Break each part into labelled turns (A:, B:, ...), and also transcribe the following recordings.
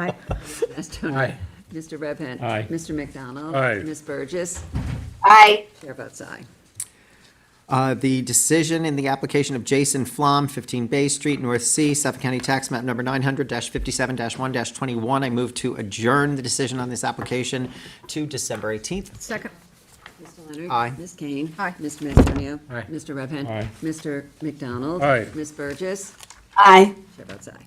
A: Aye. Mr.
B: Aye.
A: Mr. Redpath.
B: Aye.
A: Mr. McDonald.
B: Aye.
A: Ms. Burgess.
C: Aye.
A: Chair votes aye.
D: Uh, The decision in the application of Jason Flom, 15 Bay Street, North Sea, Suffolk County Tax Map Number 900-57-1-21. I move to adjourn the decision on this application to December 18th.
E: Second.
A: Mr. Leonard.
D: Aye.
A: Ms. Kane.
E: Aye.
A: Mr. Antonio.
B: Aye.
A: Mr. Redpath.
B: Aye.
A: Mr. McDonald.
B: Aye.
A: Ms. Burgess.
C: Aye.
A: Chair votes aye.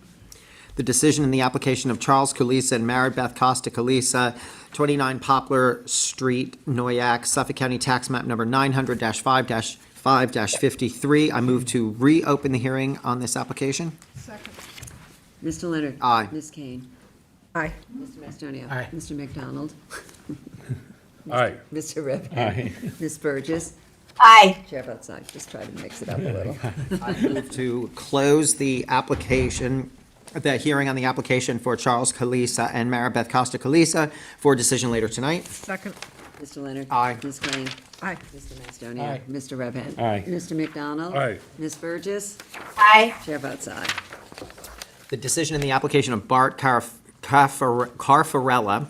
D: The decision in the application of Charles Kulisa and Mary Beth Costa Kulisa, 29 Poplar Street, Noyak, Suffolk County Tax Map Number 900-5-5-53. I move to reopen the hearing on this application.
E: Second.
A: Mr. Leonard.
D: Aye.
A: Ms. Kane.
E: Aye.
A: Mr. Antonio.
B: Aye.
A: Mr. McDonald.
B: Aye.
A: Mr. Redpath.
B: Aye.
A: Ms. Burgess.
C: Aye.
A: Chair votes aye. Just try to mix it up a little.
D: I move to close the application, the hearing on the application for Charles Kalisa and Maribeth Costa Kalisa for a decision later tonight.
E: Second.
A: Mr. Leonard.
D: Aye.
A: Ms. Kane.
E: Aye.
A: Mr. Macedonia.
B: Aye.
A: Mr. Redpath.
B: Aye.
A: Mr. McDonald.
B: Aye.
A: Ms. Burgess.
C: Aye.
A: Chair votes aye.
D: The decision in the application of Bart Carf- Carfar- Carfarella,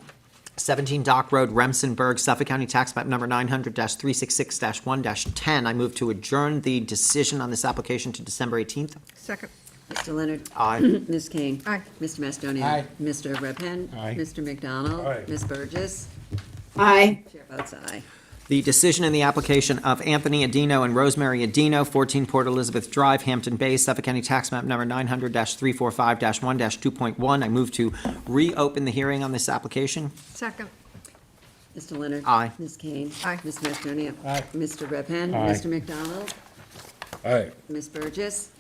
D: 17 Dock Road, Remsenburg, Suffolk County Tax Map Number 900-366-1-10. I move to adjourn the decision on this application to December 18th.
E: Second.
A: Mr. Leonard.
D: Aye.
A: Ms. King.
E: Aye.
A: Mr. Macedonia.
B: Aye.
A: Mr. Redpath.
B: Aye.
A: Mr. McDonald.
B: Aye.
A: Ms. Burgess.
C: Aye.
A: Chair votes aye.
D: The decision in the application of Anthony Adino and Rosemary Adino, 14 Port Elizabeth Drive, Hampton Bay, Suffolk County Tax Map Number 900-345-1-2.1. I move to reopen the hearing on this application.
E: Second.
A: Mr. Leonard.
D: Aye.
A: Ms. Kane.
E: Aye.
A: Ms. Macedonia.
B: Aye.
A: Mr. Redpath.
B: Aye.
A: Mr. McDonald.
B: Aye.
A: Ms. Burgess.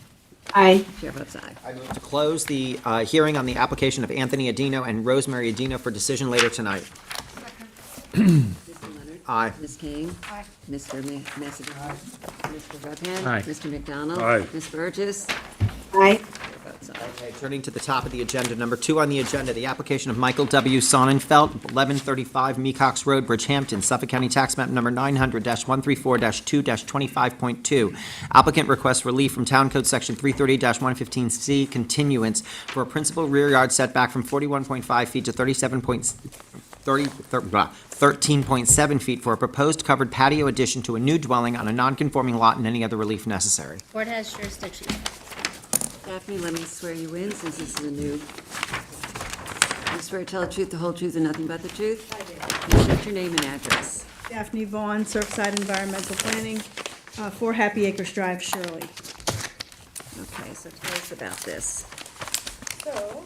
C: Aye.
A: Chair votes aye.
D: I move to close the uh, hearing on the application of Anthony Adino and Rosemary Adino for decision later tonight.
E: Second.
A: Mr. Leonard.
D: Aye.
A: Ms. Kane.
E: Aye.
A: Mr. Ma- Macedonia. Mr. Redpath.
B: Aye.
A: Mr. McDonald.
B: Aye.
A: Ms. Burgess.
C: Aye.
A: Chair votes aye.
D: Okay, turning to the top of the agenda, number two on the agenda, the application of Michael W. Sonnenfeld, 1135 Mecox Road, Bridgehampton, Suffolk County Tax Map Number 900-134-2-25.2. Applicant requests relief from Town Code Section 330-115C, continuance for a principal rear yard setback from 41.5 feet to 37 point, 30, thir- blah, 13.7 feet for a proposed covered patio addition to a new dwelling on a non-conforming lot and any other relief necessary.
F: Board has jurisdiction.
A: Daphne, let me swear you in since this is a new. You swear to tell the truth, the whole truth, and nothing but the truth? I do. State your name and address.
G: Daphne Vaughn, Surfside Environmental Planning, uh, 4 Happy Acres Drive, Shirley.
A: Okay, so tell us about this.
G: So.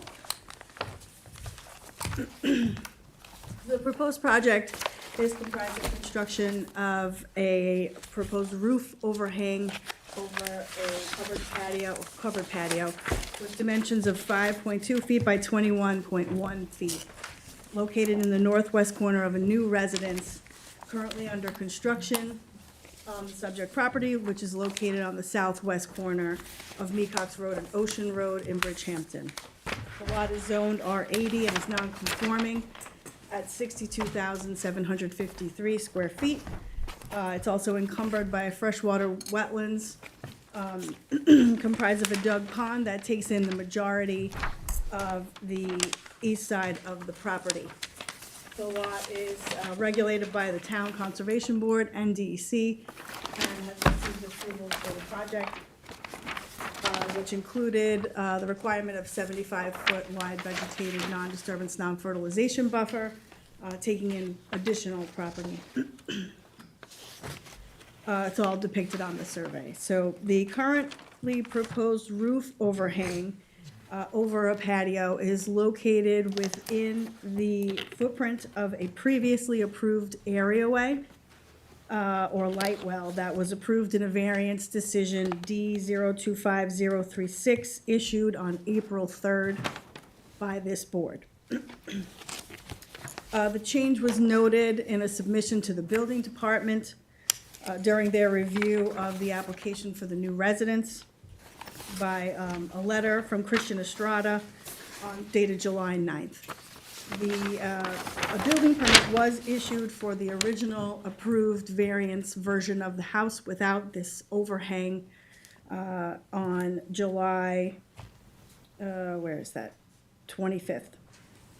G: The proposed project is comprised of construction of a proposed roof overhang over a covered patio, covered patio with dimensions of five point two feet by twenty-one point one feet, located in the northwest corner of a new residence currently under construction on the subject property, which is located on the southwest corner of Mecox Road and Ocean Road in Bridgehampton. The lot is zoned R80 and is non-conforming at 62,753 square feet. Uh, It's also encumbered by freshwater wetlands um, comprised of a dug pond that takes in the majority of the east side of the property. The lot is uh, regulated by the Town Conservation Board and DEC and has received approval for the project uh, which included uh, the requirement of 75-foot wide vegetated non-disturbance, non-fertilization buffer, uh, taking in additional property. Uh, It's all depicted on the survey. So the currently proposed roof overhang uh, over a patio is located within the footprint of a previously approved areaway uh, or light well that was approved in a variance decision D zero two five zero three six issued on April third by this board. Uh, the change was noted in a submission to the building department uh, during their review of the application for the new residence by, um, a letter from Christian Estrada on dated July 9th. The, uh, a building permit was issued for the original approved variance version of the house without this overhang uh, on July, uh, where is that? 25th.